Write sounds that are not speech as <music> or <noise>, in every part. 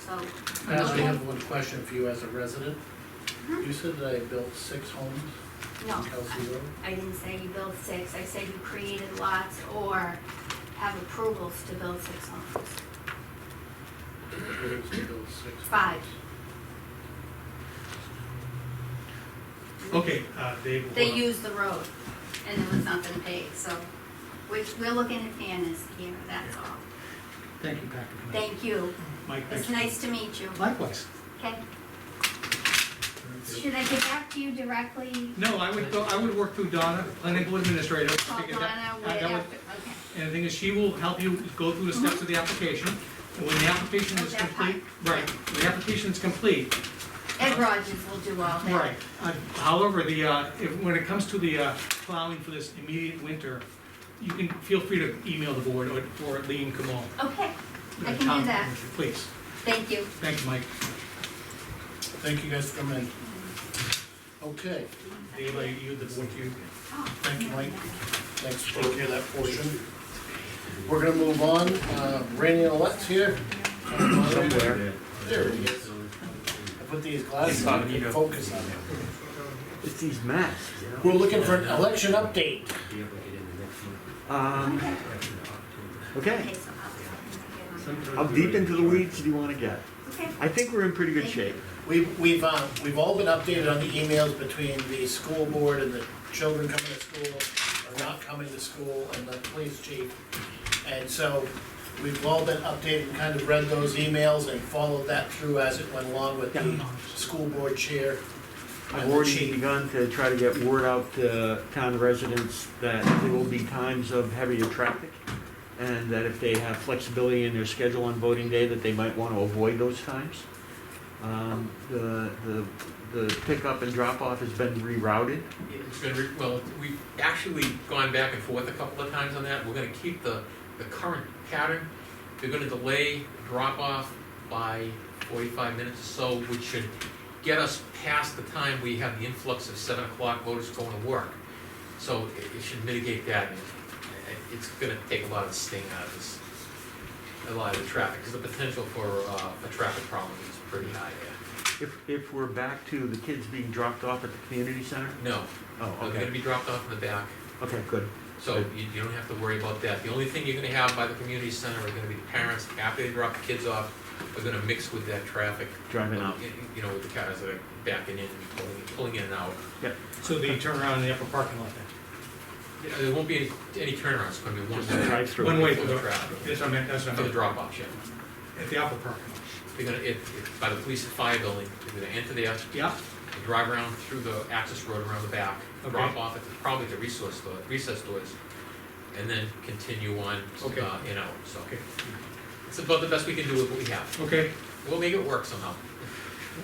so. Ashley, I have one question for you as a resident. Mhm. You said that I built six homes No, in Kelsey Road? I didn't say you build six, I said you created lots or have approvals to build six homes. Or it was to build six? Five. Okay, uh, Dave. They uh, used the road and it was nothing paid, so, which, we're looking at fairness here, that's all. Thank you, Patrick. Thank you, Mike, it's thanks. nice to meet you. Likewise. Okay, should I get back to you directly? No, I would go, I would work through Donna, planning board administrator. to Call figure that- Oh, Donna, uh, wait that would- after, okay. And the thing is, she will help you go through the steps of the application. And when the application Oh, is Mm-hmm. that complete, right, when the application is complete, Ed Rogers will do all that. right. Uh, However, the, uh, if, when it comes to the uh, plowing for this immediate winter, you can, feel free to email the board or, or Lean Kamal. Okay, uh, I can do town that. manager, Please, thank you. thank you, Mike. Thank you guys for coming in. Okay, Dave, I yield the board to you. Thank you, Mike. thanks for taking care of that portion. We're gonna move on, uh, Randy and Alette's here. Somewhere. There he is. I put these glasses on, you can focus on him. It's these masks, you know. We're looking for an election update. Um, okay. Okay, so I'll- How deep into the weeds do you want to get? Okay, I think we're in pretty good shape. We've, we've, uh, we've all been updated on the emails between the school board and the children coming to school, or not coming to school, and the police chief. And so, we've all been updated, and kind of read those emails and followed that through as it went along with the school board chair. I've already begun to try to get word out to town residents that there will be times of heavier traffic, and that if they have flexibility in their schedule on voting day, that they might want to avoid those times. Um, the, the, the pickup and drop-off has been rerouted. It's been, re- well, we've actually gone back and forth a couple of times on that. We're gonna keep the, the current pattern. They're gonna delay drop off by forty-five minutes or so, which should get us past the time we have the influx of seven o'clock voters going to work. So it, it should mitigate that. and it- It's gonna take a lot of the sting out of this, a lot of the traffic, because the potential for, uh, a traffic problem is pretty high there. If, if we're back to the kids being dropped off at the community center? No, Oh, they're gonna okay, be dropped off in the back. okay, good. So you, you don't have to worry about that. The only thing you're gonna have by the community center are gonna be the parents, after they drop the kids off, are gonna mix with that traffic. Driving out. You- You know, with the cars that are backing in and pulling, pulling in and out. So the turnaround in the upper parking lot then? You know, There won't be any, any turnarounds, it's gonna be one. Just a drive-through. One way For for the the, traffic, that's what I meant, that's what I for the meant, drop off, yeah. at the upper parking lot. They're gonna, if, if, by the police and fire building, they're gonna enter there, Yeah, they drive around through the access road around the back, Okay. drop off at, the- probably at the resource store, recess doors, and then continue on, uh, Okay. in out, so. okay, It's about the best we can do with what we have. okay, We'll make it work somehow.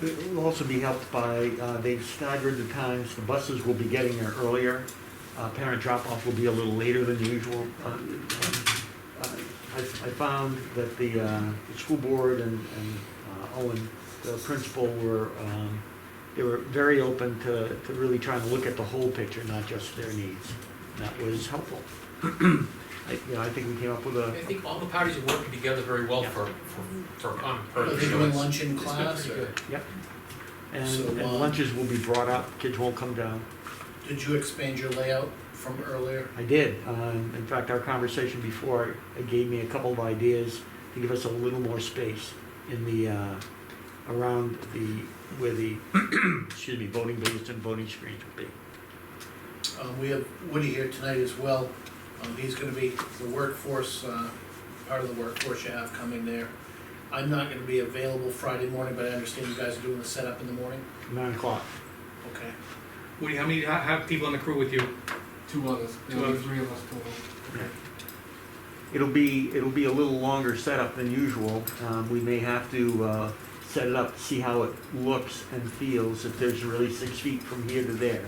It will also be helped by, uh, they've staggered the times, the buses will be getting there earlier. Uh, Parent drop-off will be a little later than usual. Uh, um, uh, I I found that the uh, the school board and and, uh, Owen, the principal, were, um, they were very open to to really trying to look at the whole picture, not just their needs. And That was helpful. I- You know, I think we came up with a, I think all the parties are working together very well for, for, for a common Are purpose. they so doing it's- lunch in it's been class, pretty or good. and So, and uh, lunches will be brought up, kids won't come down. did you expand your layout from earlier? I did. Um, in fact, our conversation before it gave me a couple of ideas to give us a little more space in the uh, around the where the <clears throat> excuse me voting booths and voting screens would be. Um, we have Woody here tonight as well. Um, he's gonna be the workforce, uh, part of the workforce you have coming there. I'm not gonna be available Friday morning, but I understand you guys are doing the setup in the morning? Nine o'clock. Okay. Woody, how many, how, how people on the crew with you? Two others, Two there'll be others. three of us total. It'll be it'll be a little longer setup than usual. Um, we may have to uh, set it up to see how it looks and feels if there's really six feet from here to there.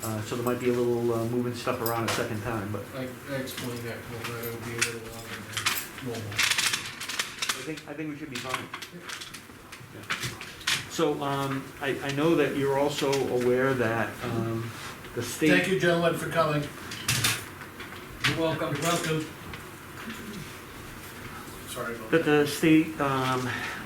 Uh, so there might be a little uh, moving stuff around a second time, but I, I explained that, to him, that it'll be a little longer than normal. I think, I think we should be fine. Yeah. So, um, I, I know that you're also aware that, um, the state. Thank you, gentlemen, for coming. You're welcome. You're welcome. Sorry about That that. the state, um,